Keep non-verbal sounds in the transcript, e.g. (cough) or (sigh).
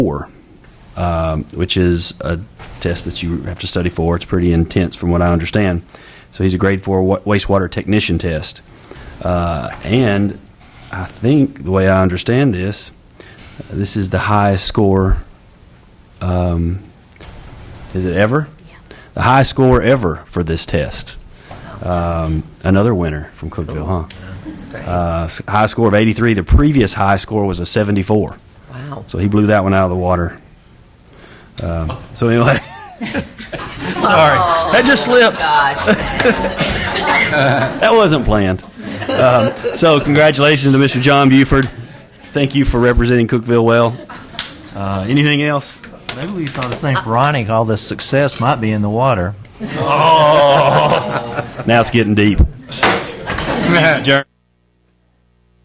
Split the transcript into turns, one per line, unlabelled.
four, um, which is a test that you have to study for. It's pretty intense, from what I understand. So he's a grade four wa- wastewater technician test, uh, and I think the way I understand this, this is the highest score. Um, is it ever? The highest score ever for this test. Um, another winner from Cookville, huh? Uh, s- high score of 83. The previous high score was a 74.
Wow.
So he blew that one out of the water. Um, so anyway, sorry, that just slipped. (laughs) that wasn't planned. Um, so congratulations to Mr. John Buford. Thank you for representing Cookville well. Uh, anything else?
Maybe we ought to think Ronnie, all this success might be in the water.
Now it's getting deep. Adjourn.